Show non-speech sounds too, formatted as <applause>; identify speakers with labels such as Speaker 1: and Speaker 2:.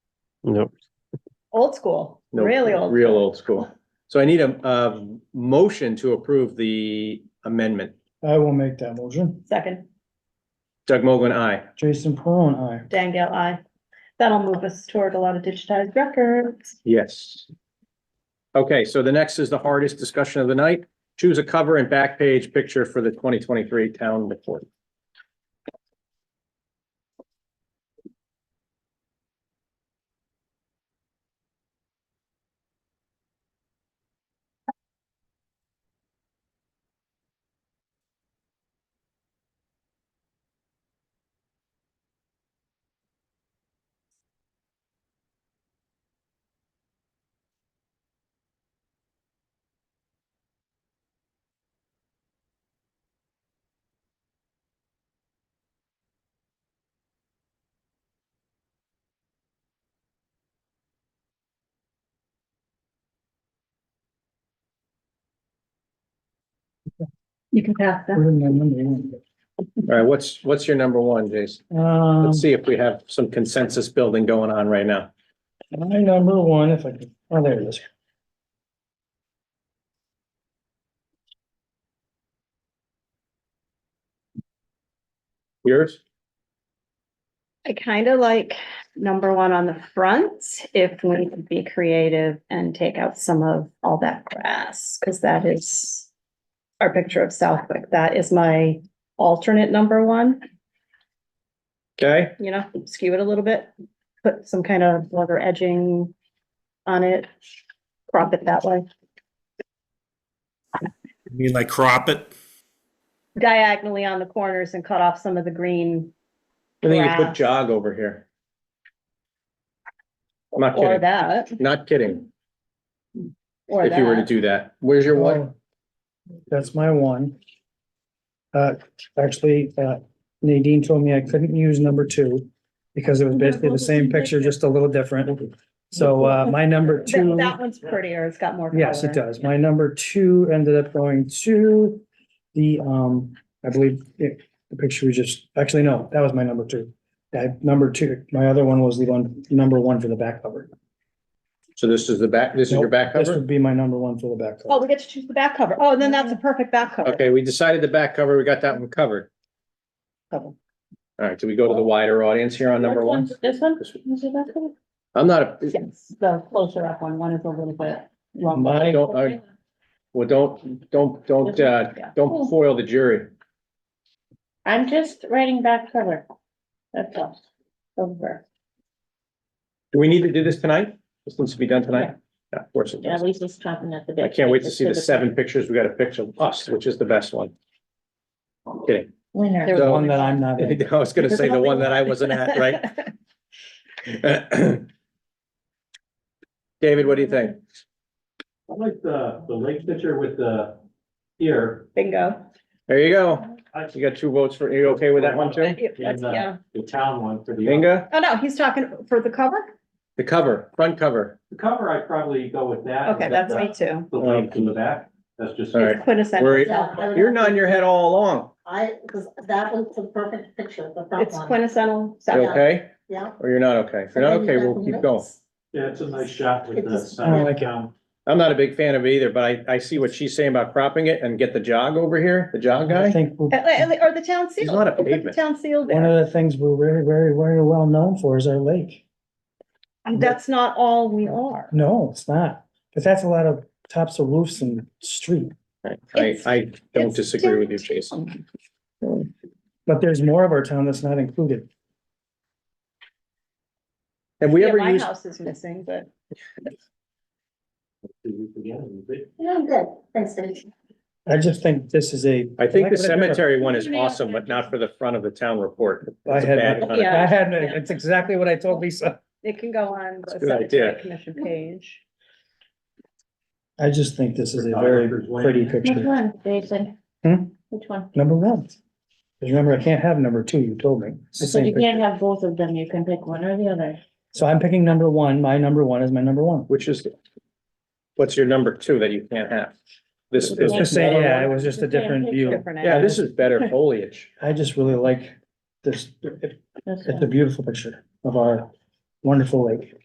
Speaker 1: Nope.
Speaker 2: Old school,
Speaker 3: No,
Speaker 2: really old.
Speaker 3: Real old school. So I need a, a motion to approve the amendment.
Speaker 4: I will make that motion.
Speaker 2: Second,
Speaker 3: Doug Mogul, aye.
Speaker 4: Jason Peron, I.
Speaker 2: Dangle, I. That'll move us toward a lot of digitized records.
Speaker 3: Yes. Okay, so the next is the hardest discussion of the night. Choose a cover and back page picture for the twenty twenty-three town report.
Speaker 2: You can pass them.
Speaker 3: All right, what's, what's your number one, Jason?
Speaker 4: Um,
Speaker 3: Let's see if we have some consensus building going on right now.
Speaker 4: my number one, if I can, oh, there it is.
Speaker 3: Yours?
Speaker 2: I kind of like number one on the front, if we could be creative and take out some of all that grass, because that is our picture of Southwick. That is my alternate number one,
Speaker 3: Okay,
Speaker 2: you know, skew it a little bit, put some kind of leather edging on it, crop it that way,
Speaker 5: You mean like crop it?
Speaker 2: diagonally on the corners and cut off some of the green
Speaker 3: I think you put
Speaker 2: Grass.
Speaker 3: jog over here. I'm not
Speaker 2: or
Speaker 3: kidding,
Speaker 2: that,
Speaker 3: not kidding.
Speaker 2: or
Speaker 3: if you were to
Speaker 2: that. Oh.
Speaker 3: do that. Where's your one?
Speaker 4: Oh, That's my one. Uh, actually, uh, Nadine told me I couldn't use number two because it was basically the same picture, just a little different. So, uh, my number
Speaker 2: That
Speaker 4: two.
Speaker 2: that one's prettier. It's got more color.
Speaker 4: Yes, it does. My number two ended up going to the, um, I believe it, the picture was just, actually, no, that was my number two. That number two, my other one was the one, number one for the back cover.
Speaker 3: So this is the back, this is your
Speaker 4: Nope,
Speaker 3: back
Speaker 4: This
Speaker 3: cover?
Speaker 4: would be my number one for the back
Speaker 2: Oh,
Speaker 4: cover.
Speaker 2: we get to choose the back cover. Oh, then that's a perfect back cover.
Speaker 3: Okay, we decided the back cover, we got that one covered.
Speaker 2: Cover.
Speaker 3: All right, do we go to the wider audience here on number
Speaker 2: Which
Speaker 3: one?
Speaker 2: one's This one?
Speaker 3: This one.
Speaker 2: Is it that one?
Speaker 3: I'm not, a
Speaker 2: Yes, the closer up one. One is a little bit
Speaker 4: My-
Speaker 2: longer.
Speaker 3: I don't, I, well, don't, don't, don't, uh,
Speaker 2: Yeah.
Speaker 3: don't foil the jury.
Speaker 2: I'm just writing back cover. That's all. Over.
Speaker 3: Do we need to do this tonight? This needs to be done tonight? Yeah, of course it
Speaker 6: Yeah,
Speaker 3: does.
Speaker 6: at least it's chopping at the bit.
Speaker 3: I can't wait to see the seven pictures. We got a picture of us, which is the best one. Kidding.
Speaker 6: Winner.
Speaker 3: <laughs>
Speaker 4: There's one that I'm not in.
Speaker 3: I was gonna say the one that I wasn't at,
Speaker 2: <laughs>
Speaker 3: right? David, what do you think?
Speaker 7: I like the, the lake picture with the here.
Speaker 2: Bingo.
Speaker 3: There you go.
Speaker 7: I-
Speaker 3: You got two votes for, are you okay with that one too?
Speaker 2: Yep, that's-
Speaker 7: uh,
Speaker 2: Yeah.
Speaker 7: The town one for the.
Speaker 3: Inga,
Speaker 2: Oh, no, he's talking for the cover?
Speaker 3: the cover, front cover.
Speaker 7: The cover, I'd probably go with that.
Speaker 2: Okay,
Speaker 7: and
Speaker 2: that's
Speaker 7: the-
Speaker 2: me too.
Speaker 7: The lake in the back, that's just.
Speaker 3: All right.
Speaker 2: It's quintessential.
Speaker 3: Where-
Speaker 2: Southwick.
Speaker 3: You're nodding your head all along.
Speaker 6: I, because that was the perfect picture, the front
Speaker 2: It's
Speaker 6: one.
Speaker 2: quintessential.
Speaker 3: You
Speaker 2: Southwick.
Speaker 3: okay?
Speaker 6: Yeah.
Speaker 3: Or you're not okay? If you're not okay, we'll keep going.
Speaker 7: Yeah, it's a nice shot with
Speaker 6: It's
Speaker 7: the.
Speaker 6: just-
Speaker 7: sun
Speaker 4: I like it.
Speaker 7: down.
Speaker 3: I'm not a big fan of either, but I, I see what she's saying about cropping it and get the jog over here, the jog
Speaker 4: I
Speaker 3: guy.
Speaker 4: think we'll-
Speaker 2: Uh, uh, Or the town seal.
Speaker 3: not a
Speaker 2: Put the
Speaker 3: pavement.
Speaker 2: Town seal
Speaker 4: one
Speaker 2: there.
Speaker 4: of the things we're very, very, very well known for is our lake.
Speaker 2: And That's not all we are.
Speaker 4: No, it's not, but that's a lot of tops of roofs and street,
Speaker 3: I,
Speaker 2: It's-
Speaker 3: I don't
Speaker 2: it's
Speaker 3: disagree with you,
Speaker 2: downtown.
Speaker 3: Jason.
Speaker 4: but there's more of our town that's not included.
Speaker 3: Have we
Speaker 2: Yeah,
Speaker 3: ever
Speaker 2: my
Speaker 3: used,
Speaker 2: house is missing, but.
Speaker 7: Do you forget it?
Speaker 6: Yeah, I'm good. Thanks, Dave.
Speaker 4: I just think this is a.
Speaker 3: I think the
Speaker 4: Like, whatever.
Speaker 3: cemetery one is awesome, but not for the front of the town report.
Speaker 4: I
Speaker 3: It's a
Speaker 4: had
Speaker 3: bad
Speaker 4: my-
Speaker 3: front of-
Speaker 4: I had, it's exactly what I told Lisa.
Speaker 2: It can go on the
Speaker 3: That's a good
Speaker 2: cemetery
Speaker 3: idea.
Speaker 2: commission page.
Speaker 4: I just think this is a very pretty
Speaker 6: Which
Speaker 4: picture.
Speaker 6: one, Jason?
Speaker 4: Hmm?
Speaker 6: Which one?
Speaker 4: Number one. 'Cause remember, I can't have number two, you told me. It's the
Speaker 6: So you
Speaker 4: same picture.
Speaker 6: can't have both of them, you can pick one or the other.
Speaker 4: So I'm picking number one. My number one is my number one.
Speaker 3: Which is, what's your number two that you can't have? This is,
Speaker 4: It's the same, yeah, it was just a
Speaker 6: It's the same
Speaker 4: different view.
Speaker 2: Different
Speaker 3: yeah,
Speaker 2: angle.
Speaker 3: this is
Speaker 2: <laughs>
Speaker 3: better foliage.
Speaker 4: I just really like this. It-
Speaker 6: That's
Speaker 4: It's a
Speaker 6: one.
Speaker 4: beautiful picture of our wonderful lake.